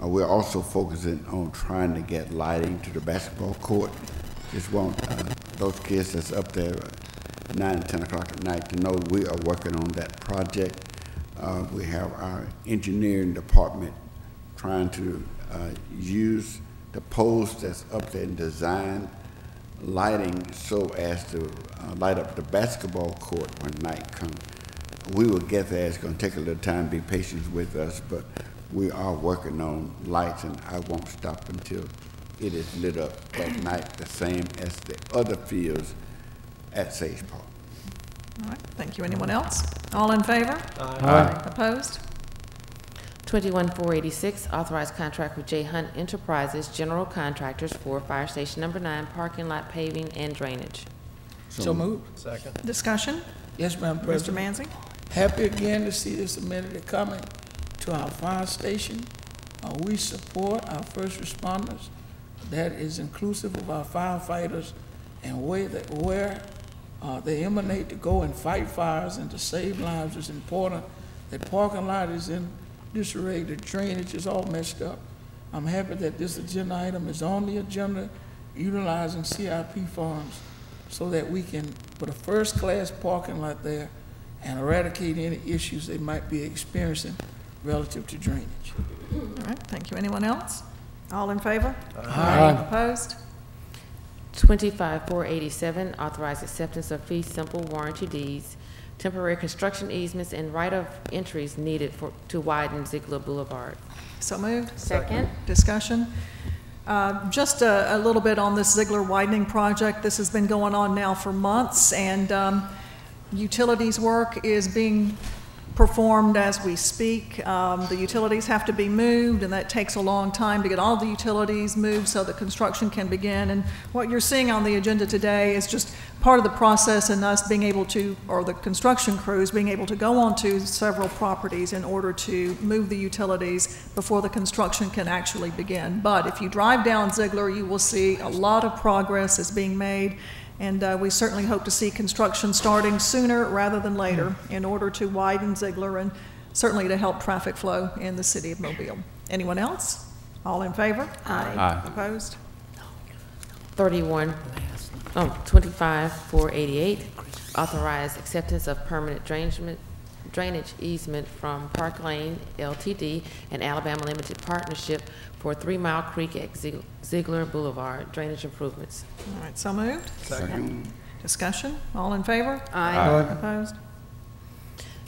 Uh, we're also focusing on trying to get lighting to the basketball court. Just want uh, those kids that's up there at nine, and ten o'clock at night to know we are working on that project. Uh, We have our engineering department trying to uh, use the posts that's up there and design lighting so as to uh, light up the basketball court when night comes. We will get there, it's gonna take a little time, be patient with us, but we are working on lights and I won't stop until it is lit up at night, the same as the other fields at Sage Park. All right, thank you. Anyone else? All in favor? Opposed? 21486, authorized contract with J Hunt Enterprises General Contractors for Fire Station Number 9 parking lot paving and drainage. So moved. Second. Discussion? Yes, Madam Mr. President. Manzi? Happy again to see this amenity coming to our fire station. Uh, We support our first responders. That is inclusive of our firefighters and where that, where uh, they emanate to go and fight fires and to save lives is important. The parking lot is in disarray, the drainage is all messed up. I'm happy that this agenda item is on the agenda utilizing CIP funds so that we can put a first-class parking lot there and eradicate any issues they might be experiencing relative to drainage. All right, thank you. Anyone else? All in favor? Opposed? 25487, authorized acceptance of fee simple warranty deeds, temporary construction easements, and right-of entries needed for, to widen Ziegler Boulevard. So moved. Second. Discussion? Uh, Just a a little bit on this Ziegler widening project. This has been going on now for months, and um, utilities work is being performed as we speak. Um, The utilities have to be moved, and that takes a long time to get all the utilities moved so the construction can begin. And what you're seeing on the agenda today is just part of the process and us being able to, or the construction crews being able to go onto several properties in order to move the utilities before the construction can actually begin. But if you drive down Ziegler, you will see a lot of progress is being made, and uh, we certainly hope to see construction starting sooner rather than later in order to widen Ziegler and certainly to help traffic flow in the city of Mobile. Anyone else? All in favor? Aye. Opposed? 31, oh, 25488, authorized acceptance of permanent drainage drainage easement from Park Lane LTD and Alabama Limited Partnership for Three Mile Creek at Zieg- Ziegler Boulevard drainage improvements. All right, so moved. Second. Discussion? All in favor? Aye. Opposed?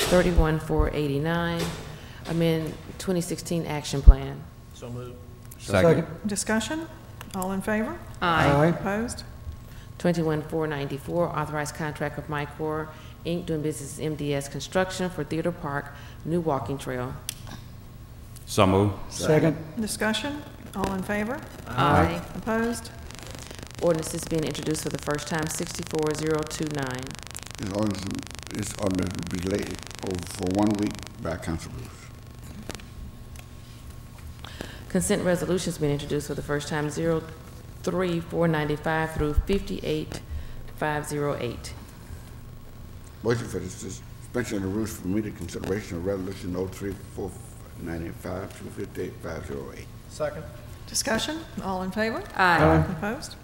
31489, amend 2016 action plan. So moved. Second. Discussion? All in favor? Aye. Opposed? 21494, authorized contract with Micor Inc. doing business as MDS Construction for Theater Park new walking trail. So moved. Second, Discussion? All in favor? Aye. Opposed? Ordinance is being introduced for the first time, 64029. It's on, it's on the delay over for one week by Council Rules. Consent resolutions being introduced for the first time, 03495 through 58508. Motion for the suspension of the rules for immediate consideration of resolution 03495 to 58508. Second. Discussion? All in favor? Aye. Opposed?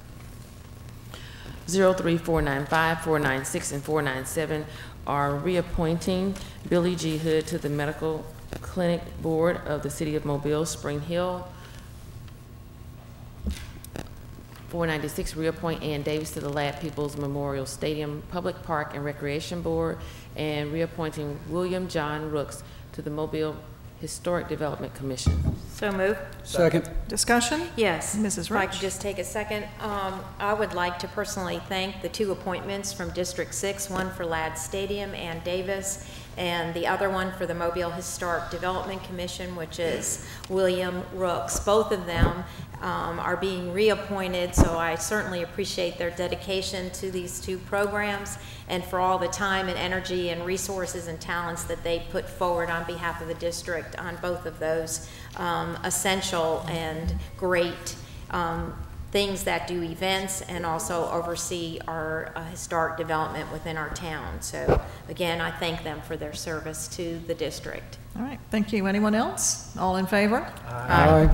03495, 496, and 497 are reappointing Billy G. Hood to the Medical Clinic Board of the City of Mobile, Spring Hill. 496, reappoint Ann Davis to the Lad Peoples Memorial Stadium Public Park and Recreation Board, and reappointing William John Rooks to the Mobile Historic Development Commission. So move. second, Discussion? Yes. Mrs. If I could Roach. just take a second, um, I would like to personally thank the two appointments from District Six, one for Ladd Stadium, Ann Davis, and the other one for the Mobile Historic Development Commission, which is William Rooks. Both of them, um, are being reappointed, so I certainly appreciate their dedication to these two programs and for all the time and energy and resources and talents that they put forward on behalf of the district on both of those um, essential and great um, things that do events and also oversee our uh, historic development within our town. So again, I thank them for their service to the district. All right, thank you. Anyone else? All in favor? aye.